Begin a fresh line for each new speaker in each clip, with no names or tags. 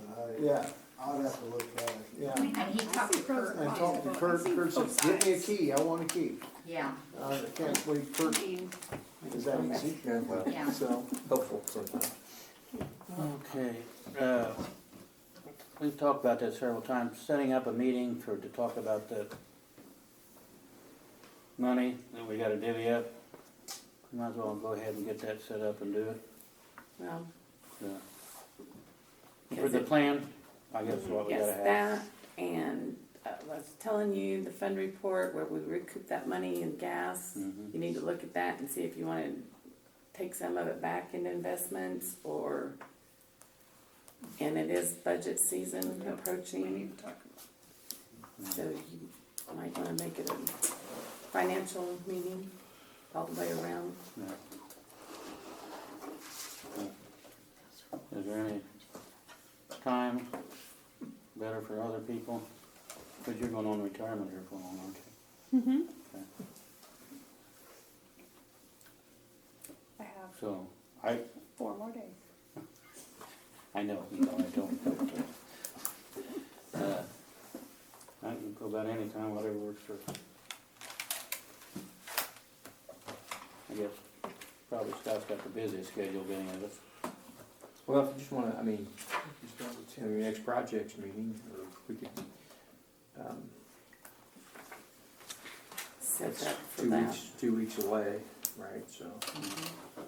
say.
yeah,
I'd have to look at it.
yeah.
And he talked to Kurt.
And talk to Kurt, Kurt says, give me a key, I want a key.
Yeah,
I can't believe Kurt is that easy,
Well,
yeah.
so.
Helpful sometimes.
Okay, uh, we've talked about that several times, setting up a meeting for, to talk about the money that we gotta divvy up. Might as well go ahead and get that set up and do it.
Well,
Yeah. For the plan, I guess what we gotta
yes,
have.
that, and uh, I was telling you, the fund report where we recoup that money in gas.
Mhm.
You need to look at that and see if you wanna take some of it back into investments or, and it is budget season approaching. So you might wanna make it a financial meeting all the way around.
Is there any time better for other people? Cause you're going on retirement here for long, aren't you?
Mm-hmm.
Okay.
I have
So, I,
four more days.
I know, you know, I don't. Uh, I can go about any time, whatever works for. I guess probably Scott's got the busiest schedule of any of us.
Well, if you just wanna, I mean, just go to your next projects meeting, or we could, um,
Set
it's
up for
two
that.
weeks, two weeks away, right, so. um,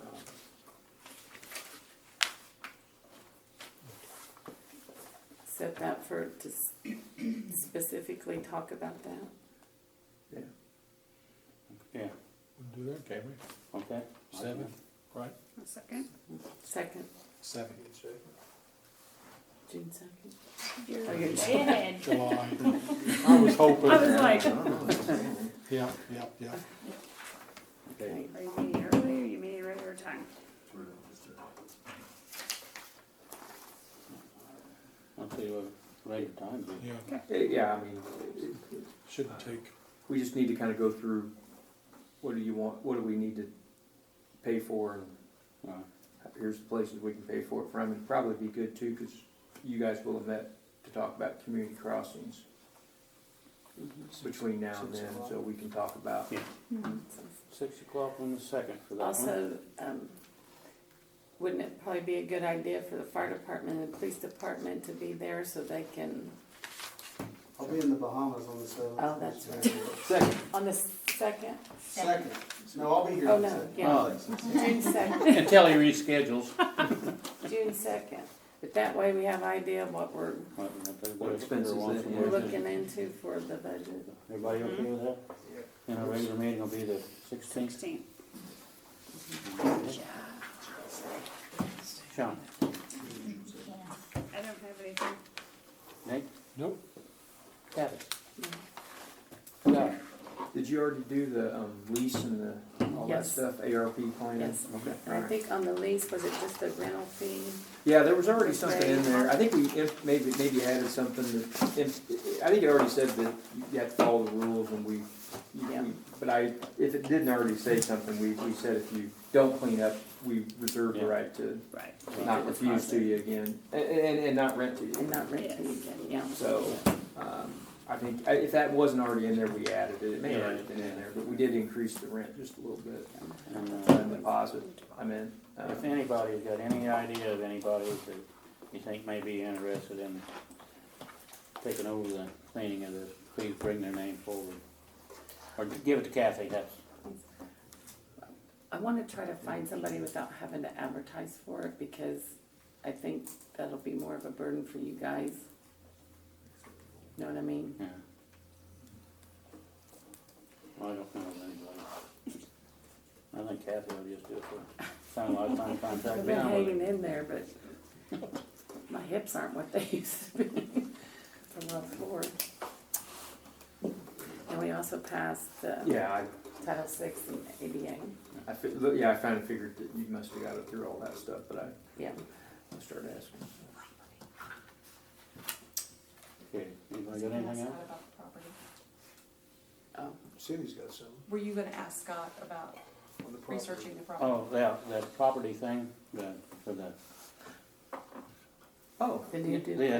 set that for, to s- specifically talk about that.
Yeah,
Do that, can we?
okay.
Seven. Right?
A second.
Second,
Seven.
June second.
You're
Okay.
dead.
July. I was hoping.
I was like,
Yeah, yeah, yeah.
Okay,
are you meeting early or you meeting regular time?
I'll tell you what, later time, but-
Yeah,
eh, Yeah, I mean, eh,
shouldn't take,
we just need to kinda go through, what do you want, what do we need to pay for, and
Alright.
here's the places we can pay for it from, and probably be good too, cause you guys will have met to talk about community crossings
Mm-hmm.
between now and then, so we can talk about.
Yeah. six o'clock on the second for that one.
Also, um, wouldn't it probably be a good idea for the fire department and the police department to be there so they can,
I'll be in the Bahamas on the seventh.
Oh, that's
right.
Second,
on the second,
Second, no, I'll be here.
Oh,
on the
no,
second.
yeah. June second,
until he reschedules.
June second. But that way we have idea of what we're,
Might be up there,
What
but
expenses
once
that
a
is.
we're
month.
looking into for the budget.
Everybody okay with that? And our regular meeting will be the sixteenth.
Sixteen.
Sean,
I don't have anything.
Nick,
nope,
Kathy. Scott.
Did you already do the um, lease and the, all that
Yes.
stuff, ARP plan?
Yes.
Okay, all
I
right.
think on the lease, was it just the rental fee?
Yeah, there was already something in there, I think we imp- maybe, maybe added something that, imp- I think it already said that you have to follow the rules and we, you-
Yeah.
we- but I, if it didn't already say something, we, we said if you don't clean up, we reserve the
Yeah.
right to
Right.
not refuse to you again, and, and, and not rent to
And
you.
not rent to you again, yeah.
So, um, I think, I- if that wasn't already in there, we added it, it may not have been in there, but we did increase the rent just a little bit.
And, uh,
And deposit, I mean, uh,
If anybody's got any idea of anybody that you think may be interested in taking over the cleaning of this, please bring their name forward. Or give it to Kathy, that's,
I wanna try to find somebody without having to advertise for it, because I think that'll be more of a burden for you guys. Know what I mean?
yeah. Well, I don't know of anybody. I think Kathy will just do it for, sound like I'm trying to
I've
track
been
down.
hanging in there, but my hips aren't what they used to be from love floor. And we also passed the
yeah, I,
Title VI and ADA,
I, fi- look, yeah, I kinda figured that you must have got it through all that stuff, but I,
yeah.
I started asking.
Okay, anybody got anything else?
Oh,
Cindy's got some
Were you gonna ask Scott about
on the property.
researching the problem?
Oh, that, that property thing, the, for the,
Oh,
then you do.
the